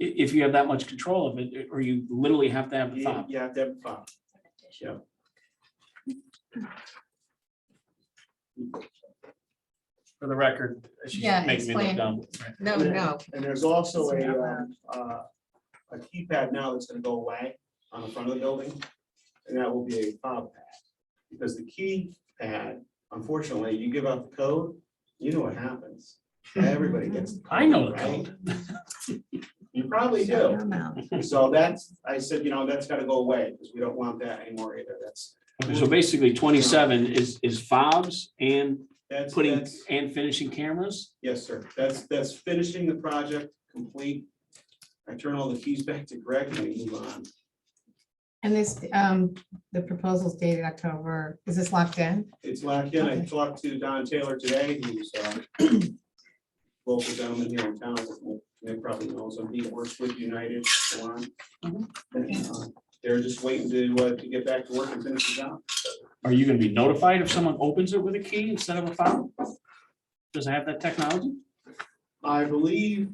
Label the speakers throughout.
Speaker 1: i- if you have that much control of it, or you literally have to have the
Speaker 2: You
Speaker 1: fob.
Speaker 2: you have to have a fob. Yeah.
Speaker 1: For the record, she's
Speaker 3: Yeah,
Speaker 1: making me
Speaker 3: explain.
Speaker 1: look dumb.
Speaker 3: No,
Speaker 2: Yeah.
Speaker 3: no,
Speaker 2: And there's also
Speaker 3: It's
Speaker 2: a,
Speaker 3: not
Speaker 2: um, uh, a keypad now that's gonna go away on the front of the building. And that will be a fob pad. Because the keypad, unfortunately, you give out the code, you know what happens. Everybody gets. the
Speaker 1: I know the
Speaker 2: right?
Speaker 1: code.
Speaker 2: You probably do. So that's, I said, you know, that's gotta go away because we don't want that anymore either. That's,
Speaker 1: Okay, So basically twenty-seven is, is fobs and
Speaker 2: that's.
Speaker 1: putting,
Speaker 2: that's-
Speaker 1: and finishing cameras?
Speaker 2: Yes, sir. That's, that's finishing the project complete. I turn all the keys back to Greg and we move on.
Speaker 3: and this, um, the proposal's dated October, is this locked in?
Speaker 2: It's locked in. I
Speaker 3: Okay.
Speaker 2: talked to Don Taylor today, who's uh local gentleman here in town. They probably knows him. He works with United Salon.
Speaker 1: Mm-hmm.
Speaker 2: And, uh, They're just waiting to, uh, to get back to work and finish the job.
Speaker 1: Are you gonna be notified if someone opens it with a key instead of a fob? Does it have that technology?
Speaker 2: I believe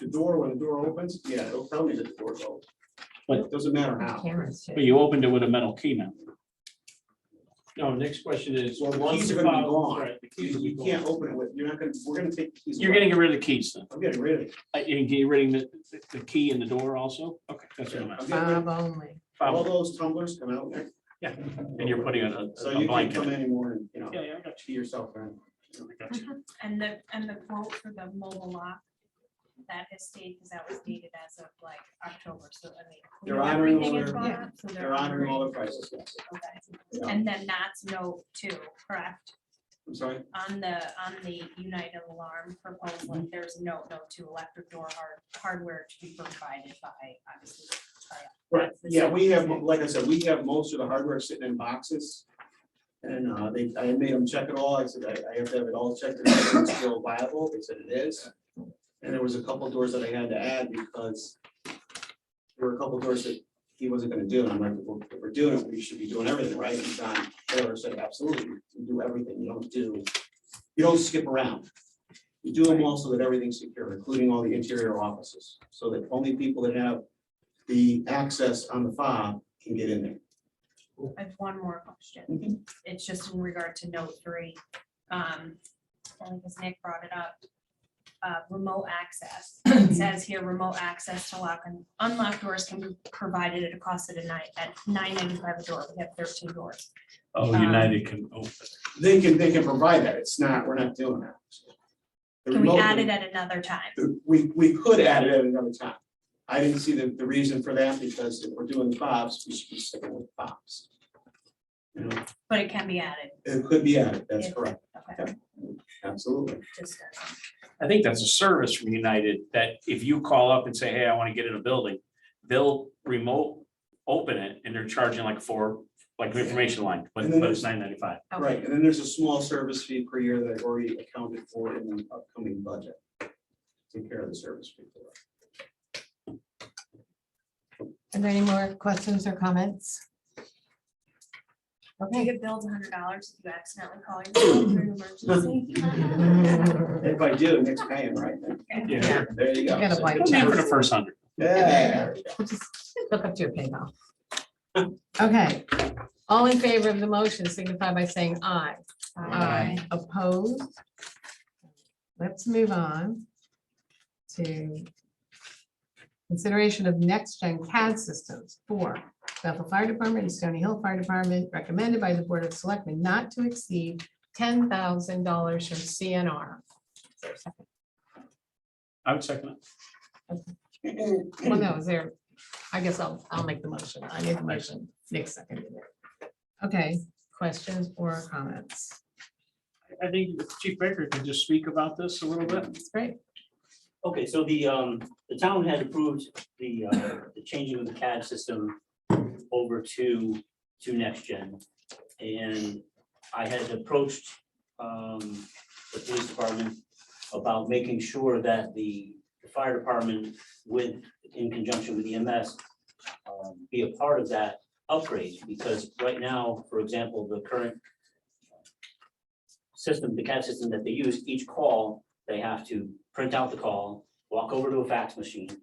Speaker 2: the door, when the door opens, yeah, it'll tell me that the door's open.
Speaker 1: But-
Speaker 2: It Doesn't matter how.
Speaker 3: Cameras. too.
Speaker 1: But you opened it with a metal key now. No, next question is.
Speaker 2: Well, the keys are gonna be gone. You can't open it with, you're not gonna, we're gonna take. the keys
Speaker 1: You're
Speaker 2: away.
Speaker 1: getting rid of the keys then.
Speaker 2: I'm getting rid of it.
Speaker 1: Uh, You're getting rid of the, the key in the door also? Okay, that's what I'm
Speaker 2: I'm
Speaker 1: asking.
Speaker 2: getting rid of-
Speaker 3: Bob only.
Speaker 2: All those tumblers come out there,
Speaker 1: And you're putting on a-
Speaker 2: so
Speaker 1: a
Speaker 2: you can't come
Speaker 1: blanket.
Speaker 2: anymore and, you know,
Speaker 1: Yeah, yeah, I got
Speaker 2: to yourself, man.
Speaker 1: you. I got you.
Speaker 4: And the, and the quote for the mobile lock, that has stayed, because that was dated as of like October, so I mean. we
Speaker 2: They're
Speaker 4: know
Speaker 2: honoring
Speaker 4: everything
Speaker 2: all
Speaker 4: has
Speaker 2: their-
Speaker 4: gone
Speaker 3: Yeah.
Speaker 4: up, so
Speaker 2: They're honoring all the prices. yes.
Speaker 4: Okay. And then that's note two, correct?
Speaker 2: I'm sorry,
Speaker 4: On the, on the United Alarm proposal, there's note, note two, electric door hard, hardware to be provided by, obviously.
Speaker 2: right,
Speaker 4: the
Speaker 2: yeah, we have,
Speaker 4: second.
Speaker 2: like I said, we have most of the hardware sitting in boxes. And uh, they, I made them check it all, I said, I, I have to have it all checked, and if it's still viable, they said it is. And there was a couple doors that I had to add because there were a couple doors that he wasn't gonna do, and I'm like, well, if we're doing it, we should be doing everything, right? And John Taylor said, absolutely, you do everything, you don't do, you don't skip around. You do them all so that everything's secure, including all the interior offices, so that only people that have the access on the fob can get in there.
Speaker 4: I have one more question.
Speaker 2: Mhm.
Speaker 4: It's just in regard to note three. Um, only because Nick brought it up. Uh, remote access. It says here, remote access to lock and unlock doors can be provided at a cost of a night at nine ninety-five a door. We have thirteen doors.
Speaker 1: Oh,
Speaker 4: Um,
Speaker 1: United can open.
Speaker 2: They can, they can provide that, it's not, we're not doing that. The
Speaker 4: Can we
Speaker 2: remote-
Speaker 4: add it at another time?
Speaker 2: the- We, we could add it at another time. I didn't see the, the reason for that, because if we're doing fobs, we should be sticking with fobs. You know,
Speaker 4: But it can be added,
Speaker 2: it could be added, that's
Speaker 4: Yeah.
Speaker 2: correct,
Speaker 4: okay,
Speaker 2: absolutely.
Speaker 4: just. uh,
Speaker 1: I think that's a service from United that if you call up and say, hey, I want to get in a building, they'll remote open it and they're charging like four, like an information line, but but it's nine ninety-five.
Speaker 4: okay.
Speaker 2: Right, and then there's a small service fee per year that I've already accounted for in the upcoming budget. Take care of the service fee. for it.
Speaker 3: Are there any more questions or comments?
Speaker 4: You
Speaker 3: Okay.
Speaker 4: could build a hundred dollars if you accidentally call yourself an emergency.
Speaker 2: If I do, next paying, right?
Speaker 1: Yeah.
Speaker 2: There you go.
Speaker 3: Get a bite.
Speaker 1: It'll be for the first hundred.
Speaker 2: Yeah.
Speaker 3: We'll just Hook up to your PayPal. Okay, all in favor of the motion signify by saying aye.
Speaker 4: Aye.
Speaker 3: Opposed? Let's move on to consideration of next-gen CAD systems for Bethel Fire Department and Stony Hill Fire Department, recommended by the Board of Selectmen not to exceed ten thousand dollars from CNR.
Speaker 1: I would second it.
Speaker 3: Well, no, is there, I guess I'll, I'll make the motion. I made the motion. Nick seconded it. Okay, questions or comments?
Speaker 1: I think Chief Baker could just speak about this a little bit.
Speaker 3: That's great.
Speaker 5: Okay, so the, um, the town had approved the, uh, the changing of the CAD system over to, to next gen. And I had approached, um, the police department about making sure that the fire department with, in conjunction with EMS, um, be a part of that upgrade, because right now, for example, the current system, the CAD system that they use, each call they have to print out the call, walk over to a fax machine,